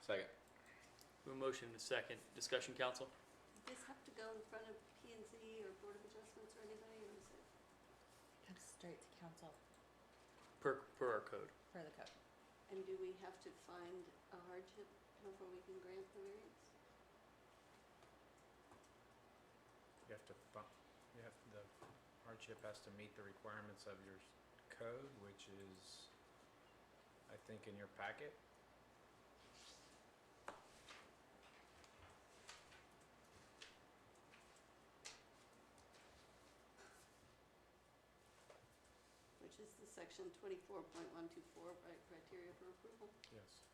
Second. We have a motion and a second. Discussion, council? Does this have to go in front of P and Z or Board of Adjustments or anybody, or is it? Comes straight to council Per, per our code. for the code. And do we have to find a hardship before we can grant the variance? You have to, fi- you have, the hardship has to meet the requirements of your s- code, which is, I think, in your packet. Which is the section twenty-four point one two four, right, criteria for approval? Yes.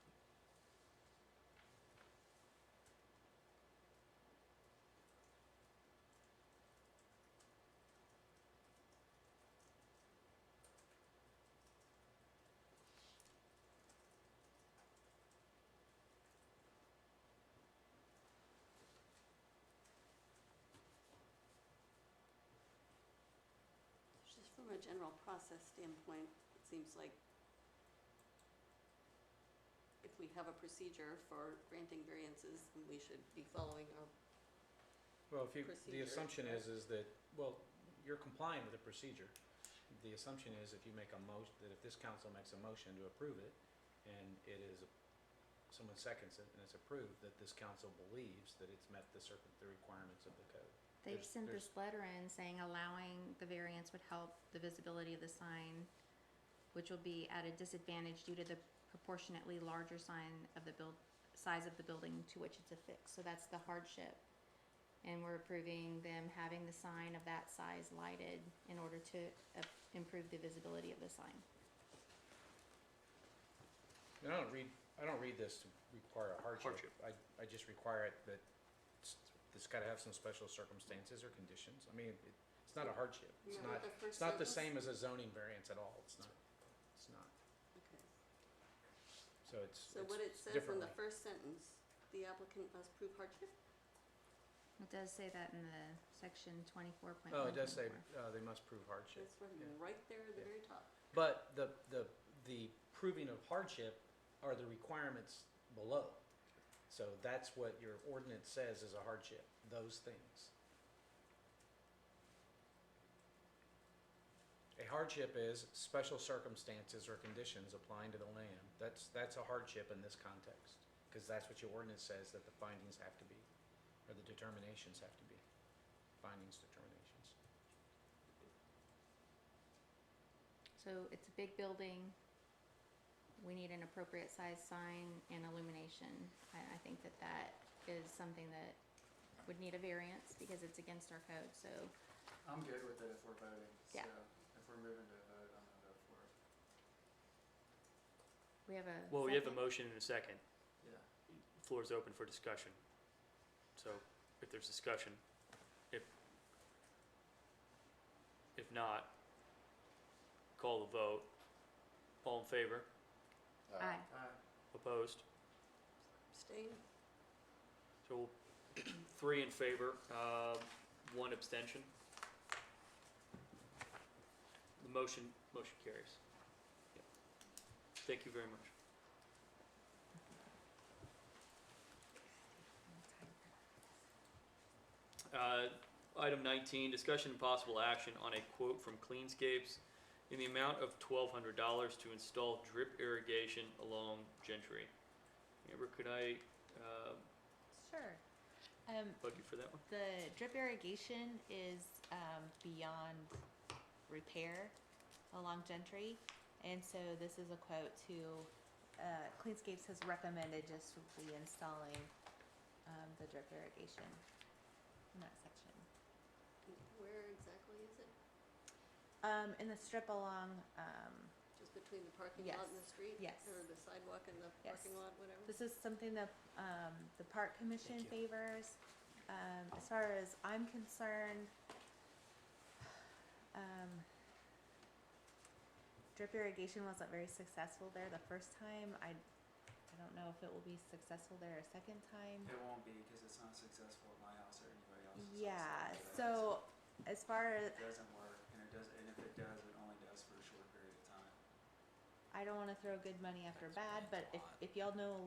Just from a general process standpoint, it seems like if we have a procedure for granting variances, then we should be following our, Well, if you, the Procedure, assumption right? is, is that, well, you're complying with the procedure. The assumption is if you make a motion, that if this council makes a motion to approve it, and it is, someone seconds it and it's approved, that this council believes that it's met the circuit, the requirements of the code. They've There's- sent there's- this letter in saying allowing the variance would help the visibility of the sign, which will be at a disadvantage due to the proportionately larger sign of the build, size of the building to which it's affixed, so that's the hardship. And we're approving them having the sign of that size lighted in order to uh, improve the visibility of the sign. And I don't read, I don't read this to require a hardship. Hardship. I, I just require it that s- it's gotta have some special circumstances or conditions. I mean, it- it's not a hardship. It's you know, not, the it's first not the sentence? same as a zoning variance at all. It's not, it's not. Okay. So it's, So what it's it says in the differently. first sentence, the applicant must prove hardship? It does say that in the section twenty-four point Oh, one. it does say, uh, they must prove hardship. That's from yeah. right there at the Yeah. very top. But the, the, the proving of hardship are the requirements below. So that's what your ordinance says is a hardship, those things. A hardship is special circumstances or conditions applying to the land. That's, that's a hardship in this context, because that's what your ordinance says that the findings have to be, or the determinations have to be. Findings, determinations. So it's a big building. We need an appropriate size sign and illumination. I, I think that that is something that would need a variance because it's against our code, so I'm good with it if we're voting, so Yeah. if we're moving to a vote, I'm gonna vote for it. we have a. Well, we have a second? motion and a second. Yeah. Floor is open for discussion. So if there's discussion, if, if not, call the vote. All in favor? Aye. Aye. Opposed? Abstain? So we'll- three in favor, uh, one abstention. The motion, motion carries. Yep. Thank you very much. Uh, Item 19, discussion and possible action on a quote from Cleanscapes in the amount of $1,200 to install drip irrigation along Gentry. Amber, could I uh, Sure. Um, bug you for that one? the drip irrigation is, um, beyond repair along Gentry. And so this is a quote to, uh, Cleanscapes has recommended just reinstalling, um, the drip irrigation in that section. Where exactly is it? Um, in the strip along, um, Just between the parking lot and the street? yes. Or the sidewalk and the Yes. parking lot, whatever? This is something that, um, the park commission Thank favors. Um, as far as I'm concerned, um, drip irrigation wasn't very successful there the first time. I, I don't know if it will be successful there a second time. It won't be, cause it's not successful at my house or anybody else's. house, Yeah, but I so as far as, just- It doesn't work, and it does, and if it does, it only does for a short period of time. I don't wanna throw good money after bad, but if, if y'all know a